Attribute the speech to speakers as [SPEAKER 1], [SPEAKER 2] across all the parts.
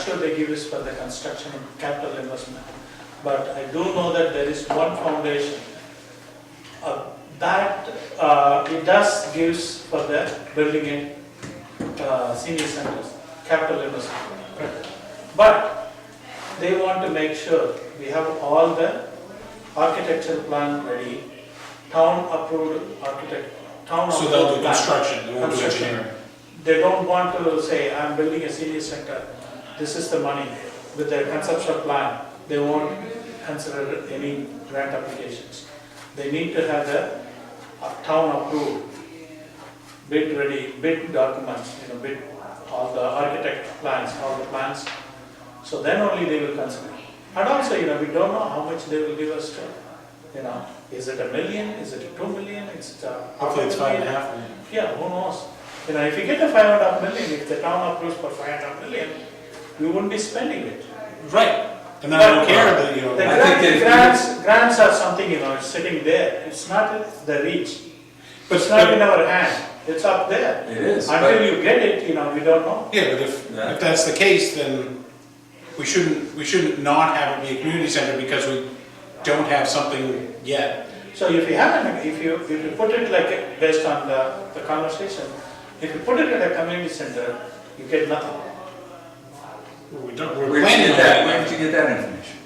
[SPEAKER 1] ratio they give is for the construction and capital investment. But I do know that there is one foundation uh, that uh, it does gives for the building in uh, senior centers, capital investment. But they want to make sure we have all the architectural plan ready, town approved architect, town approved.
[SPEAKER 2] So they'll do
[SPEAKER 1] plan.
[SPEAKER 2] construction, they won't do
[SPEAKER 1] Construction.
[SPEAKER 2] engineering.
[SPEAKER 1] They don't want to say, I'm building a senior center, this is the money. With their conceptual plan, they won't consider any grant applications. They need to have the uh, town approved, bid ready, bid documents, you know, bid, all the architect plans, all the plans. So then only they will consider. And also, you know, we don't know how much they will give us to, you know, is it a million, is it two million, uh, is it a half a
[SPEAKER 2] Hopefully it's five and a
[SPEAKER 1] million?
[SPEAKER 2] half million.
[SPEAKER 1] Yeah, who knows? You know, if you get a five and a half million, if the town approves for five and a half million, we wouldn't be spending it.
[SPEAKER 2] Right, and then I don't
[SPEAKER 1] But-
[SPEAKER 2] care, but you know,
[SPEAKER 1] The
[SPEAKER 2] I
[SPEAKER 3] think
[SPEAKER 1] grant-
[SPEAKER 3] that-
[SPEAKER 1] grants, grants are something, you know, it's sitting there, it's not in the reach,
[SPEAKER 2] but,
[SPEAKER 1] it's not in
[SPEAKER 2] but-
[SPEAKER 1] our hand, it's up there.
[SPEAKER 3] It is,
[SPEAKER 1] Until
[SPEAKER 3] but,
[SPEAKER 1] you get it, you know, we don't know.
[SPEAKER 2] yeah, but if,
[SPEAKER 3] Yeah.
[SPEAKER 2] if that's the case, then we shouldn't, we shouldn't not have it be a community center because we don't have something yet.
[SPEAKER 1] So if you have, an- if you, if you put it like, a- based on the, the conversation, if you put it in a community center, you get nothing.
[SPEAKER 2] We don't,
[SPEAKER 3] where
[SPEAKER 2] we're
[SPEAKER 3] did
[SPEAKER 2] planning
[SPEAKER 3] you get
[SPEAKER 2] on
[SPEAKER 3] that, where
[SPEAKER 2] that.
[SPEAKER 3] did you get that information?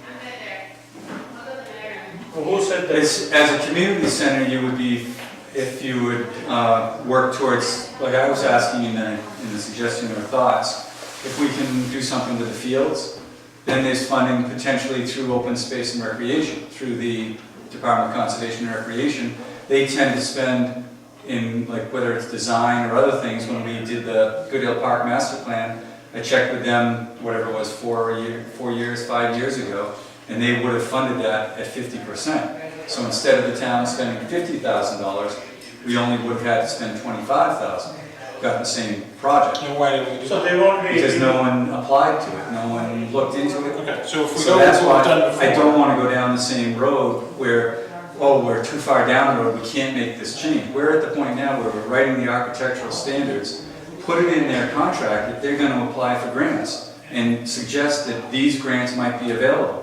[SPEAKER 1] Who said that?
[SPEAKER 3] It's, as a community center, you would be, if you would uh, work towards, like I was asking in the, in the suggestion or thoughts, if we can do something with the fields, then there's funding potentially through open space and recreation, through the Department of Conservation and Recreation. They tend to spend in, like, whether it's design or other things, when we did the Goodale Park Master Plan, I checked with them, whatever it was, four year, four years, five years ago, and they would have funded that at fifty percent. So instead of the town spending fifty thousand dollars, we only would have had to spend twenty-five thousand, got the same project.
[SPEAKER 2] And why did we do
[SPEAKER 1] So
[SPEAKER 2] that?
[SPEAKER 1] they won't be.
[SPEAKER 3] Because no one applied to it, no one looked into it.
[SPEAKER 2] Okay, so if we
[SPEAKER 3] So
[SPEAKER 2] go with
[SPEAKER 3] that's
[SPEAKER 2] what
[SPEAKER 3] why
[SPEAKER 2] we've done before.
[SPEAKER 3] I don't wanna go down the same road where, oh, we're too far down the road, we can't make this change. We're at the point now where we're writing the architectural standards, put it in their contract that they're gonna apply for grants and suggest that these grants might be available.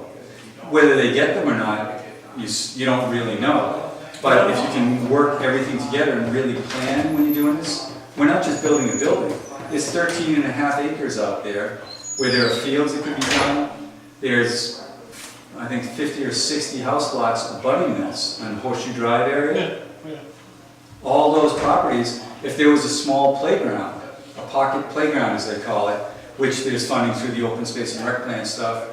[SPEAKER 3] Whether they get them or not, you, s- you don't really know. But if you can work everything together and really plan when you're doing this, we're not just building a building. There's 13 and a half acres out there where there are fields that could be done. There's, I think, 50 or 60 house lots abutting this on Horseshoe Drive area.
[SPEAKER 2] Yeah, yeah.
[SPEAKER 3] All those properties, if there was a small playground, a pocket playground as they call it, which there's funding through the open space and rec plan stuff,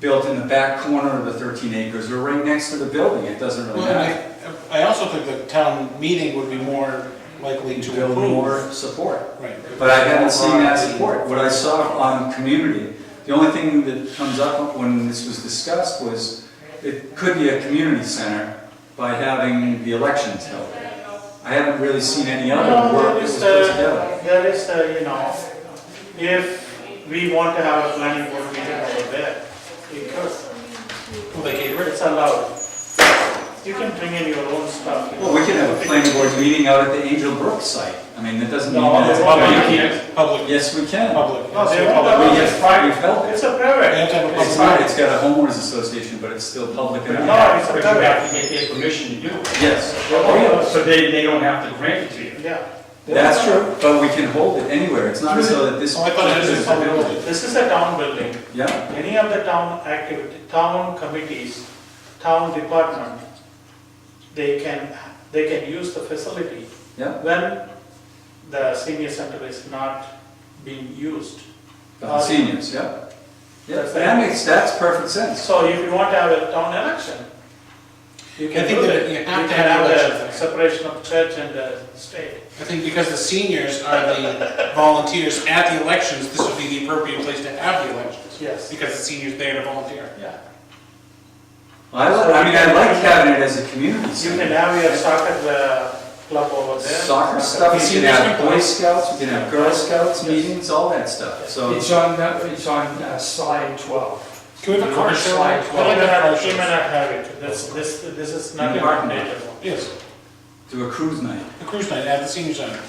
[SPEAKER 3] built in the back corner of the 13 acres or right next to the building, it doesn't really
[SPEAKER 2] Well, and
[SPEAKER 3] matter.
[SPEAKER 2] I, I also think the town meeting would be more likely
[SPEAKER 3] To
[SPEAKER 2] to
[SPEAKER 3] build
[SPEAKER 2] approve.
[SPEAKER 3] more support.
[SPEAKER 2] Right.
[SPEAKER 3] But I haven't seen that support. What I saw on community, the only thing that comes up when this was discussed was it could be a community center by having the elections held. I haven't really seen any other
[SPEAKER 1] No,
[SPEAKER 3] work that
[SPEAKER 1] there
[SPEAKER 3] was
[SPEAKER 1] is,
[SPEAKER 3] put together.
[SPEAKER 1] uh, there is, uh, you know, if we want to have a planning board meeting over there, we could.
[SPEAKER 2] Will they get rid of
[SPEAKER 1] it's allowed. You can bring in your own stuff. you know.
[SPEAKER 3] Well, we could have a planning board meeting out at the Angel Brook site. I mean, that doesn't mean
[SPEAKER 1] No,
[SPEAKER 3] that.
[SPEAKER 1] it's not
[SPEAKER 3] it's-
[SPEAKER 1] like-
[SPEAKER 2] it? Public,
[SPEAKER 3] Yes, we can.
[SPEAKER 2] public.
[SPEAKER 1] No, they
[SPEAKER 2] It's
[SPEAKER 1] won't
[SPEAKER 2] public.
[SPEAKER 1] allow
[SPEAKER 3] We
[SPEAKER 1] it.
[SPEAKER 3] have-
[SPEAKER 1] It's private.
[SPEAKER 3] we've held it.
[SPEAKER 1] It's a
[SPEAKER 2] They
[SPEAKER 1] private.
[SPEAKER 2] have to have a public.
[SPEAKER 3] It's not, it's got a homeowners association, but it's still public. and-
[SPEAKER 1] No, it's a
[SPEAKER 4] But you have
[SPEAKER 1] private.
[SPEAKER 4] to get their permission to do it. Oh,
[SPEAKER 3] Yes.
[SPEAKER 4] So they, they don't have to grant it to you.
[SPEAKER 1] Yeah.
[SPEAKER 3] That's true, but we can hold it anywhere, it's not so that this.
[SPEAKER 2] Oh, I thought it was a public building.
[SPEAKER 1] This is a town building.
[SPEAKER 3] Yeah,
[SPEAKER 1] Any of the town activity, town committees, town department, they can, they can use the facility
[SPEAKER 3] yeah,
[SPEAKER 1] when the senior center is not being used.
[SPEAKER 3] for the seniors, yeah. Yeah,
[SPEAKER 1] That's
[SPEAKER 3] that
[SPEAKER 1] it.
[SPEAKER 3] makes, that's perfect sense.
[SPEAKER 1] So if you want to have a town election, you
[SPEAKER 2] I
[SPEAKER 1] can
[SPEAKER 2] think
[SPEAKER 1] do
[SPEAKER 2] that
[SPEAKER 1] that.
[SPEAKER 2] you have
[SPEAKER 1] You
[SPEAKER 2] to
[SPEAKER 1] can
[SPEAKER 2] have
[SPEAKER 1] the
[SPEAKER 2] election.
[SPEAKER 1] Separation of church and uh, state.
[SPEAKER 2] I think because the seniors are the volunteers at the elections, this would be the appropriate place to have the elections.
[SPEAKER 1] Yes.
[SPEAKER 2] Because the seniors there to volunteer.
[SPEAKER 1] Yeah.
[SPEAKER 3] I li- I mean, I like having it as a community
[SPEAKER 1] You can
[SPEAKER 3] center.
[SPEAKER 1] have your soccer uh, club over there.
[SPEAKER 3] Soccer stuff, you can
[SPEAKER 2] Seniors
[SPEAKER 3] have
[SPEAKER 2] can
[SPEAKER 3] Boy
[SPEAKER 2] play.
[SPEAKER 3] Scouts, you can have Girl Scouts meetings, all that stuff, so.
[SPEAKER 5] It's on, that- it's on uh, slide 12.
[SPEAKER 2] Can we have a car show?
[SPEAKER 5] Slide
[SPEAKER 1] You may
[SPEAKER 5] 12.
[SPEAKER 1] not have- you may not have it. This, this, this is not
[SPEAKER 3] In
[SPEAKER 1] a
[SPEAKER 3] the parking lot.
[SPEAKER 1] mandatory.
[SPEAKER 2] Yes,
[SPEAKER 3] Do a cruise night.
[SPEAKER 2] a cruise night at the senior center.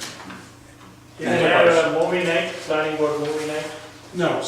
[SPEAKER 1] You can have a movie night, planning board movie night.
[SPEAKER 2] No,